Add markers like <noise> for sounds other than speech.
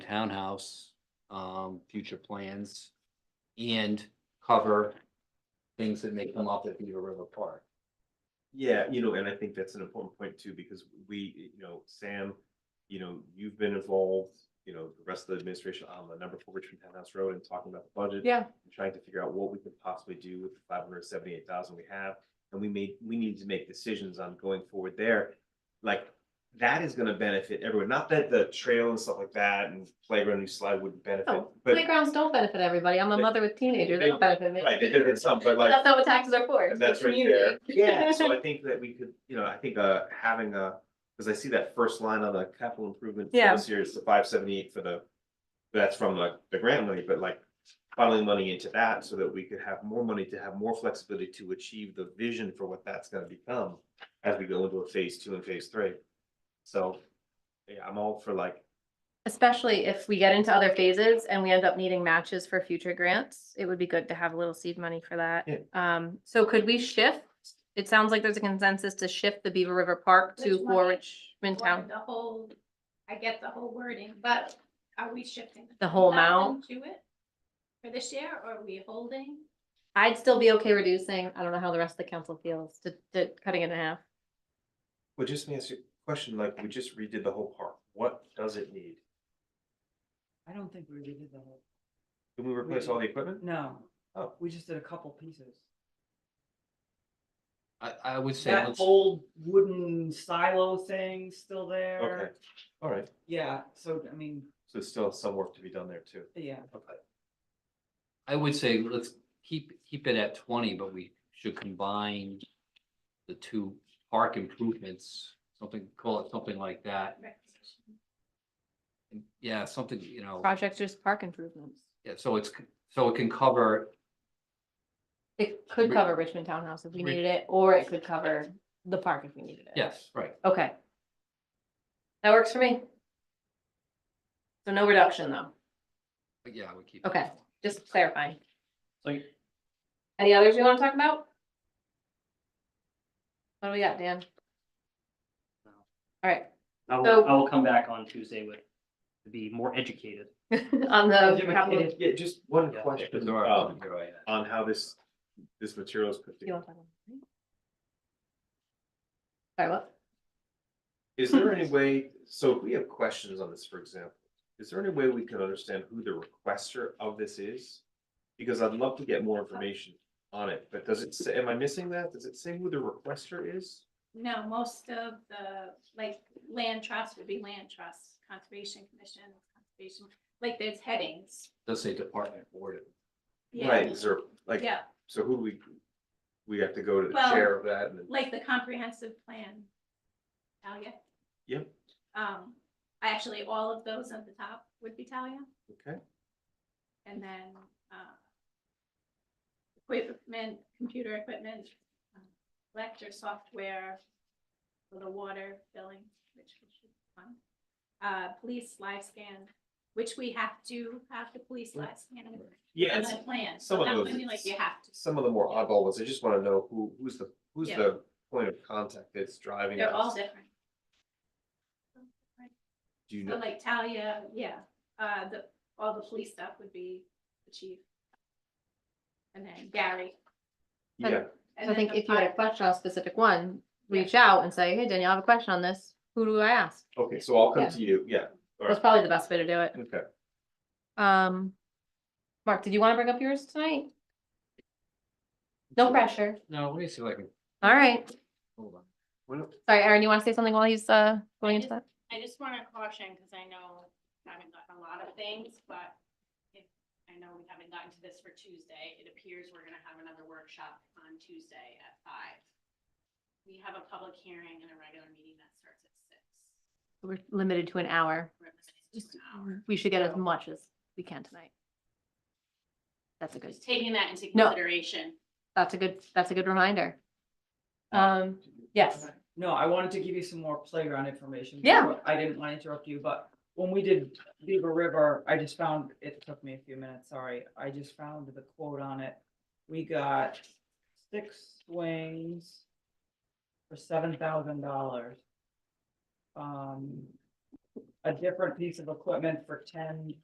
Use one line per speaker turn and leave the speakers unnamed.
townhouse, um, future plans. And cover things that may come up at Beaver River Park.
Yeah, you know, and I think that's an important point too, because we, you know, Sam, you know, you've been involved, you know, the rest of the administration on the number four Richmond Townhouse Road and talking about the budget.
Yeah.
and Trying to figure out what we can possibly do with the five hundred seventy-eight thousand we have, and we made, we need to make decisions on going forward there. Like, that is gonna benefit everyone, not that the trail and stuff like that and playground new slide wouldn't benefit,
No,
but.
Playgrounds don't benefit everybody. I'm a
They-
mother with teenagers. They
they-
don't benefit me.
Right, they did it some, but like.
That's not what taxes are for. it's the
That's right
community.
there. Yeah, so I think that we could, you know, I think uh having a, because I see that first line on the capital improvement for
Yeah.
this year is the five seventy eight for the. That's from the the grant money, but like funneling money into that so that we could have more money to have more flexibility to achieve the vision for what that's gonna become. As we go into a phase two and phase three. So, yeah, I'm all for like,
Especially if we get into other phases and we end up needing matches for future grants, it would be good to have a little seed money for that.
Yeah.
Um, so could we shift? It sounds like there's a consensus to shift the Beaver River Park to
Which
for
money?
Richmond
Or
Town.
The whole, I get the whole wording, but are we shifting?
The whole
20,000 To it? For this year, or are we holding?
I'd still be okay reducing, I don't know how the rest of the council feels, to, to cutting it in half.
well, just let me ask you a question, like, we just redid the whole park. What does it need?
I don't think we redid the whole,
Can we replace all the equipment?
no,
Oh.
we just did a couple pieces.
I, I would say,
That
let's-
old wooden silo thing still
Okay,
there.
all right,
Yeah, so I mean,
so there's still some work to be done there too.
yeah,
Okay.
I would say let's keep, keep it at twenty, but we should combine. The two park improvements, something, call it something like that. Yeah, something, you know,
Projects just park improvements.
yeah, so it's, c- so it can cover
It could
Ri-
cover Richmond Townhouse if we
Ri-
needed it, or it could cover the park if we needed it.
Yes, right.
Okay. That works for me. So no reduction though,
But yeah, we keep.
Okay. just clarifying.
So
Any others we want to talk about? What do we got, Dan?
No.
All right,
I
So-
will, I will come back on Tuesday with, to be more educated.
<laughs> on the
Educated.
capital. you
Yeah, just one
Yeah.
question,
There are,
um,
there are, yeah.
on how this, this material is put
wanna
together.
talk about it? Sorry, what?
Is there any way, so if we have questions on this, for example, is there any way we can understand who the requester of this is? Because I'd love to get more information on it, but does it say, am I missing that? Does it say who the requester is?
No, most of the, like, land trust would be land trust, conservation commission, conservation, like, there's headings.
Does say department board.
Yeah.
Right, is there, like,
Yeah,
so who do we, we have to go to the
Well,
chair of that and then?
like the comprehensive plan. Talia?
Yep.
Um, actually, all of those at the top would be Talia.
Okay,
And then, uh, equipment, computer equipment, um, lecture software, for the water billing, which we should fund. Uh, police live scan, which we have to have the police live scan in
yeah,
the
it's-
plan.
some
So
of
that
those
would be like
it's-
you have to.
some of the more oddball ones, I just wanna know who, who's the, who's
Yeah.
the point of contact that's driving
They're all
us?
different.
Do you
So
know,
like Talia, yeah, uh, the, all the police stuff would be the chief. And then Gary.
yeah,
So I
and then
think
the
if you had a
fire-
question on a specific one, reach out and say, hey, Danielle, I have a question on this. Who do I ask?
Okay, so I'll
Yeah.
come to you, yeah,
That's probably the best way to do it.
okay.
Um, Mark, did you want to bring up yours tonight? No pressure.
No, let me see if I can,
All right.
hold on.
Sorry, Aaron, you want to say something while he's uh going into that?
I just want to caution, because I know we haven't gotten a lot of things, but if, I know we haven't gotten to this for Tuesday. It appears we're gonna have another workshop on Tuesday at five. We have a public hearing and a regular meeting that starts at six.
We're limited to an hour.
We're limited to an hour.
We should get as much as we can tonight. That's a good,
Just taking that into
No.
consideration.
that's a good, that's a good reminder. Um, yes,
No, I wanted to give you some more playground information.
Yeah.
I didn't want to interrupt you, but when we did Beaver River, I just found, it took me a few minutes, sorry, I just found the quote on it. We got six swings for seven thousand dollars. Um, a different piece of equipment for ten